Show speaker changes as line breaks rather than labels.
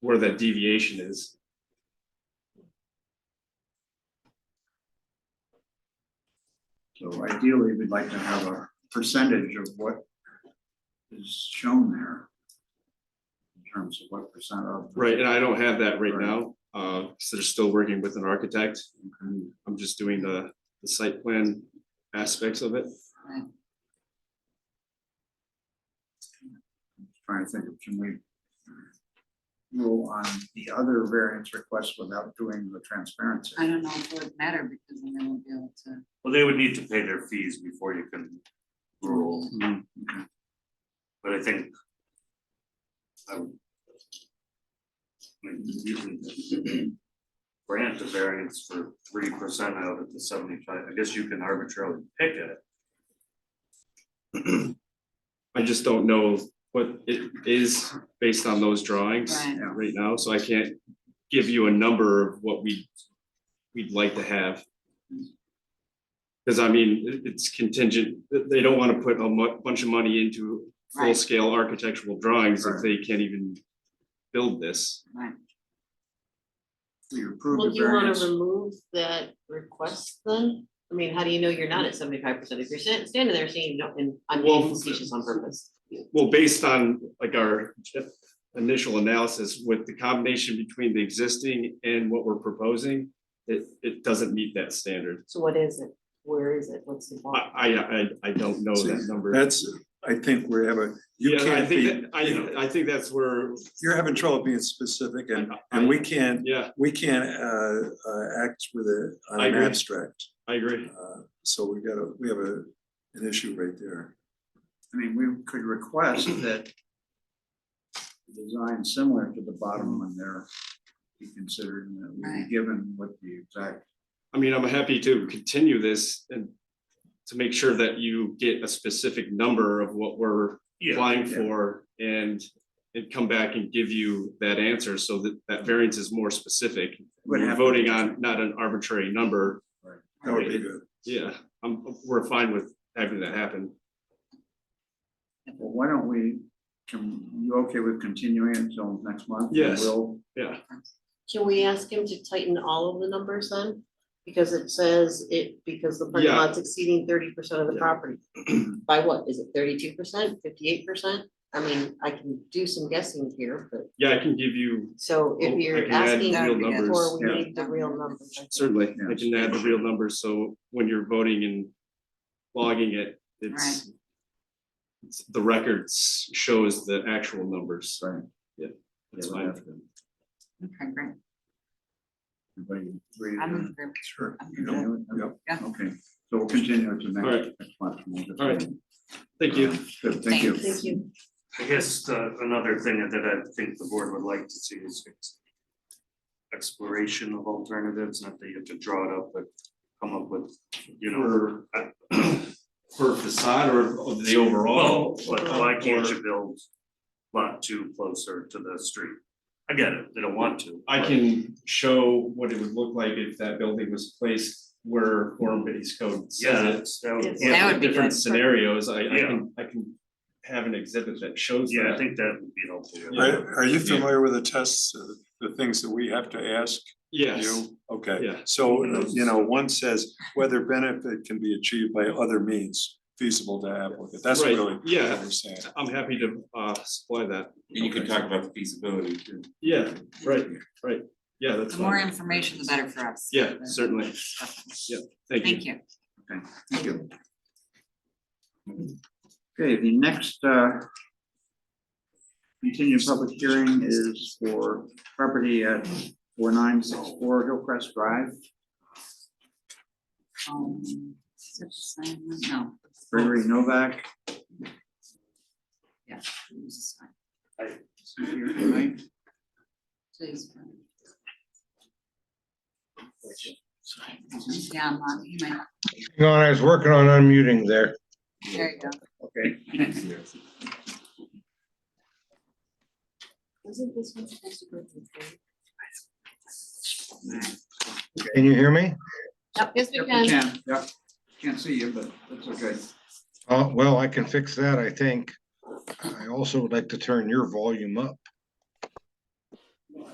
where that deviation is.
So ideally, we'd like to have a percentage of what is shown there. In terms of what percent of.
Right, and I don't have that right
Right.
now, uh, so they're still working with an architect. I'm just doing the, the site plan aspects of it.
Trying to think of, can we rule on the other variance requests without doing the transparency?
I don't know if it would matter because then they won't be able to.
Well, they would need to pay their fees before you can rule,
Hmm.
but I think. I would- I mean, you can Grant a variance for three percent out of the seventy-five, I guess you can arbitrarily pick it.
I just don't know what it is based on those drawings
Right.
Yeah.
right now, so I can't give you a number of what we, we'd like to have. Cause I mean, it- it's contingent, they- they don't wanna put a mu- bunch of money into
Right.
full-scale architectural drawings if
Right.
they can't even build this.
We approve
Well,
the
do you wanna
variance.
remove that request then? I mean, how do you know you're not at seventy-five percent if you're sta- standing there saying no, and I'm
Well,
being facetious on purpose?
Well, based on like our initial analysis with the combination between the existing and what we're proposing, it, it doesn't meet that standard.
So what is it? Where is it? What's the bar?
I, I, I, I don't know Oh, that number.
That's, I think we have a, you
Yeah, I
can't
think,
be,
that- I, I think that's where,
you're having trouble being specific and,
I-
and we can't,
yeah,
we can't, uh, uh, act with a, on
I
an
agree.
abstract.
I agree.
Uh, So we got a, we have a, an issue right there.
I mean, we could request that the design similar to the
Mm.
bottom one there be considered and that we
Right.
be given what the exact.
I mean, I'm happy to continue this and to make sure that you get a specific number of what we're applying
yeah.
for and and come back and give you that answer so that that variance is more specific.
would
You're
have to-
voting on not an arbitrary number.
That would be
Right.
good.
Yeah, I'm, we're fine with having that happen.
Well, why don't we, can, you okay with continuing until next month? And
Yes.
We'll,
Yeah,
Can we ask him to tighten all of the numbers then? Because it says it, because the parking
Yeah.
lot's exceeding thirty percent of the
Yeah.
property. By what? Is it thirty-two percent, fifty-eight percent? I mean, I can do some guessing here, but
yeah, I can give you,
so
Oh, I
if you're
can add
asking
real
before
numbers.
we
Yeah.
need the real numbers. I think.
certainly, I can add the real numbers, so when you're voting and logging it, it's it's- the records shows the actual numbers.
sorry.
Yeah, that's
Yeah, we
fine.
have to-
Okay, great.
Everybody agree?
I'm
to-
in group.
Sure.
I'm
You
in group.
know,
Yep.
Yeah.
Okay, so we'll continue to
All right.
next, next month. and we'll just-
All right. Thank you.
Good, thank you.
Thank you.
I guess uh, another thing that I think the board would like to see is ex- exploration of alternatives, not that you have to draw it up, but come up with, you know. uh,
For facade or of the overall?
Well, but why can't you build lot two closer to the street? I get it, they don't want to.
I
but-
can show what it would look like if that building was placed where form based code
Yeah,
says it.
that's- that would,
Yes.
yeah,
That
And
would be
Different
good.
scenarios, I I
Yeah.
can, I can have an exhibit that shows
yeah, I
that.
think that would be helpful.
Are, are you
Yeah.
familiar with the tests, uh, the things that we have to ask
Yes,
you? Okay,
Yeah.
so, uh, you know, one says whether benefit can be achieved by other means feasible to applicant. That's
Right,
really what
yeah.
we're saying.
I'm happy to uh supply that.
And you can talk about the feasibility too.
Yeah, right, right. Yeah, that's
The more
fine.
information, the better for us.
Yeah, certainly. Yeah, Thank you.
Thank you.
Thank you. Okay, the next uh, continued public hearing is for property at four nine six four Hillcrest Drive,
Um, is it the same one? No.
Gregory Novak.
Yeah. it was the same.
is here tonight.
Please. Yeah, I'm on, you might,
Hang on, I was working on unmuting there.
there you go.
Okay,
Wasn't this one supposed to go through?
Can you hear me?
Yep, yes,
Yep,
we
we
can.
can, yep. Can't see you, but that's okay.
Uh, well, I can fix that, I think. I also would like to turn your volume up.